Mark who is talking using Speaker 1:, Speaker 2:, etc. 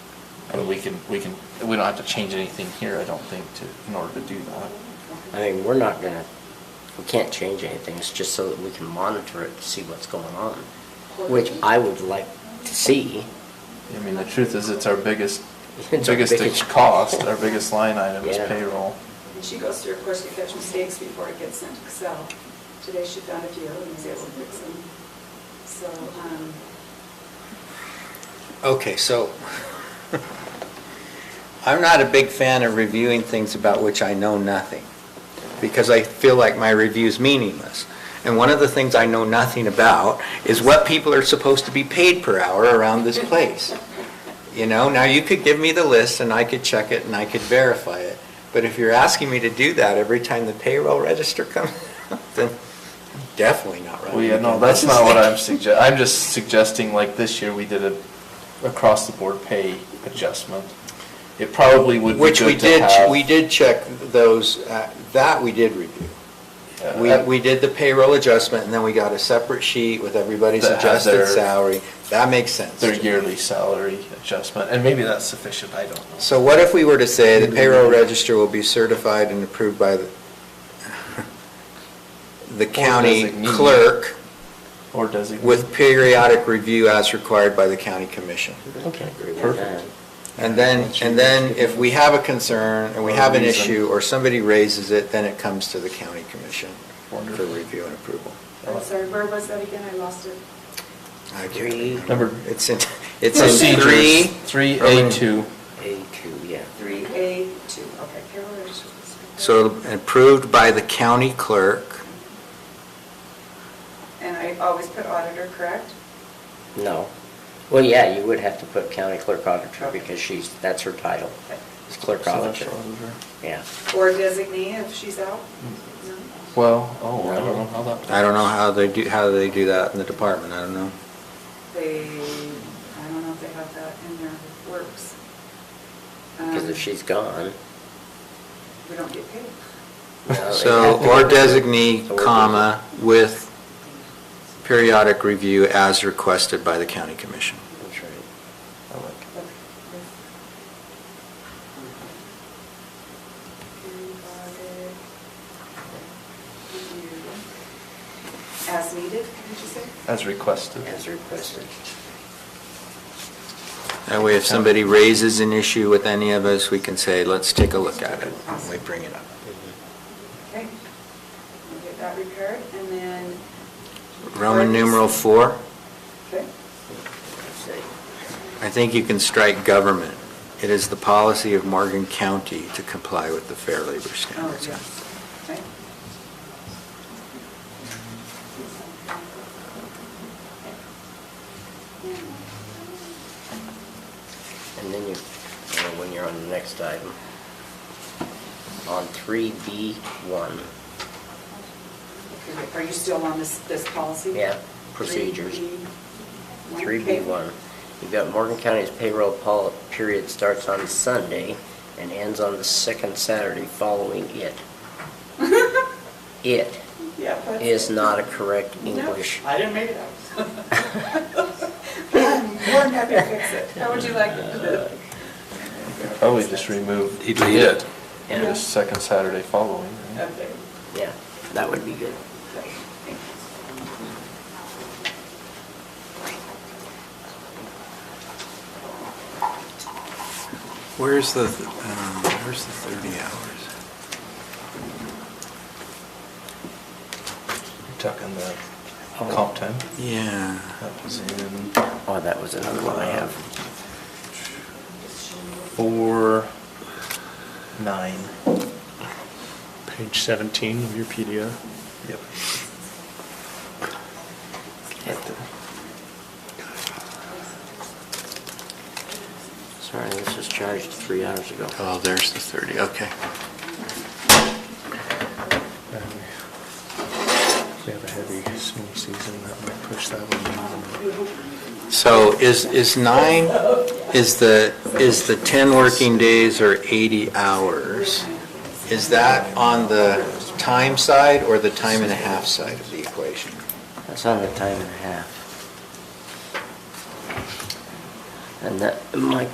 Speaker 1: I mean, we can, we can, we don't have to change anything here, I don't think, to, in order to do that.
Speaker 2: I mean, we're not gonna, we can't change anything, it's just so that we can monitor it to see what's going on, which I would like to see.
Speaker 1: I mean, the truth is, it's our biggest,
Speaker 2: It's our
Speaker 1: biggest
Speaker 2: biggest-
Speaker 1: cost, our biggest line item is
Speaker 2: Yeah.
Speaker 1: payroll.
Speaker 3: And she goes through a course to catch mistakes before it gets sent to Excel. Today she found a few and was able to fix them. So, um,
Speaker 4: Okay, so I'm not a big fan of reviewing things about which I know nothing, because I feel like my review's meaningless. And one of the things I know nothing about is what people are supposed to be paid per hour around this place. You know, now you could give me the list and I could check it and I could verify it, but if you're asking me to do that every time the payroll register comes, then I'm definitely not right.
Speaker 1: Well, yeah, no, that's not what I'm suggesting, I'm just suggesting, like, this year, we did a across-the-board pay adjustment. It probably would be good
Speaker 4: Which
Speaker 1: to
Speaker 4: we did,
Speaker 1: have-
Speaker 4: we did check those, uh, that we did review.
Speaker 1: Yeah.
Speaker 4: We, we did the payroll adjustment, and then we got a separate sheet with everybody's
Speaker 1: That has
Speaker 4: adjusted
Speaker 1: their-
Speaker 4: salary. That makes sense.
Speaker 1: Their yearly salary adjustment, and maybe that's sufficient, I don't know.
Speaker 4: So what if we were to say the payroll register will be certified and approved by the, the county
Speaker 1: designee.
Speaker 4: clerk
Speaker 1: Or designate.
Speaker 4: with periodic review as required by the county commission?
Speaker 2: I can agree with that.
Speaker 1: Perfect.
Speaker 4: And then, and then if we have a concern, and we
Speaker 1: Or
Speaker 4: have an
Speaker 1: reason.
Speaker 4: issue, or somebody raises it, then it comes to the county commission for
Speaker 1: Wonderful.
Speaker 4: review and approval.
Speaker 1: Uh,
Speaker 3: I'm sorry, where was that again? I lost it.
Speaker 4: I can't remember.
Speaker 1: Number-
Speaker 4: It's in, it's in
Speaker 1: Procedures,
Speaker 4: three.
Speaker 1: three
Speaker 4: Roman-
Speaker 1: A2.
Speaker 2: A two, yeah.
Speaker 3: 3A2, okay, payroll register.
Speaker 4: So approved by the county clerk.
Speaker 3: And I always put auditor, correct?
Speaker 2: No. Well, yeah, you would have to put county clerk auditor because she's, that's her title, is clerk
Speaker 1: So that's
Speaker 2: auditor.
Speaker 1: auditor.
Speaker 2: Yeah.
Speaker 3: Or designee if she's out? No?
Speaker 1: Well, oh, I don't know how that.
Speaker 4: I don't know how they do, how they do that in the department, I don't know.
Speaker 3: They, I don't know if they have that in their works.
Speaker 2: Because if she's gone,
Speaker 3: Um, We don't get paid.
Speaker 2: No,
Speaker 4: So,
Speaker 2: they
Speaker 4: or
Speaker 2: have to-
Speaker 4: designee,
Speaker 2: So we're-
Speaker 4: comma, with periodic review as requested by the county commission.
Speaker 2: that's right.
Speaker 1: I like it.
Speaker 3: Okay. As needed, did you say?
Speaker 1: As requested.
Speaker 2: As requested.
Speaker 4: That way, if somebody raises an issue with any of us, we can say, let's take a look at it, and we bring it up.
Speaker 3: Okay. We'll get that repaired and then.
Speaker 4: Roman numeral four,
Speaker 3: Okay.
Speaker 4: I think you can strike government. It is the policy of Morgan County to comply with the Fair Labor
Speaker 3: Oh,
Speaker 4: Standards.
Speaker 3: yes. Okay.
Speaker 2: And then you, uh, when you're on the next item, on three B one,
Speaker 3: Okay, Are you still on this, this policy?
Speaker 2: Yeah, procedures.
Speaker 3: 3B1.
Speaker 2: three B one, you've got Morgan County's payroll pol- period starts on Sunday and ends on the second Saturday following it. It
Speaker 3: Yeah. that's-
Speaker 2: is not a correct
Speaker 3: No,
Speaker 2: English.
Speaker 3: I didn't make it up. I'm more than happy to fix it. How would you like it?
Speaker 2: Uh,
Speaker 3: to
Speaker 1: Probably just remove.
Speaker 4: He did.
Speaker 2: Yeah.
Speaker 1: The second Saturday following.
Speaker 3: be?
Speaker 1: right?
Speaker 3: Okay.
Speaker 2: Yeah, that would be good.
Speaker 4: Where's the, um, where's the 30 hours?
Speaker 1: You're talking the
Speaker 3: Oh.
Speaker 1: comp time.
Speaker 4: Yeah.
Speaker 1: That was in
Speaker 2: Oh, that was another one I have.
Speaker 1: four, nine.
Speaker 5: Page 17 of your PDF.
Speaker 1: Yep. Right there.
Speaker 2: Sorry, this was charged three hours ago.
Speaker 4: Oh, there's the 30, okay.
Speaker 5: We have a heavy snow season that might push that one. even more.
Speaker 4: So is, is nine, is the, is the 10 working days or 80 hours? Is that on the time side or the time and a half side of the equation?
Speaker 2: That's on the time and a half. And that, my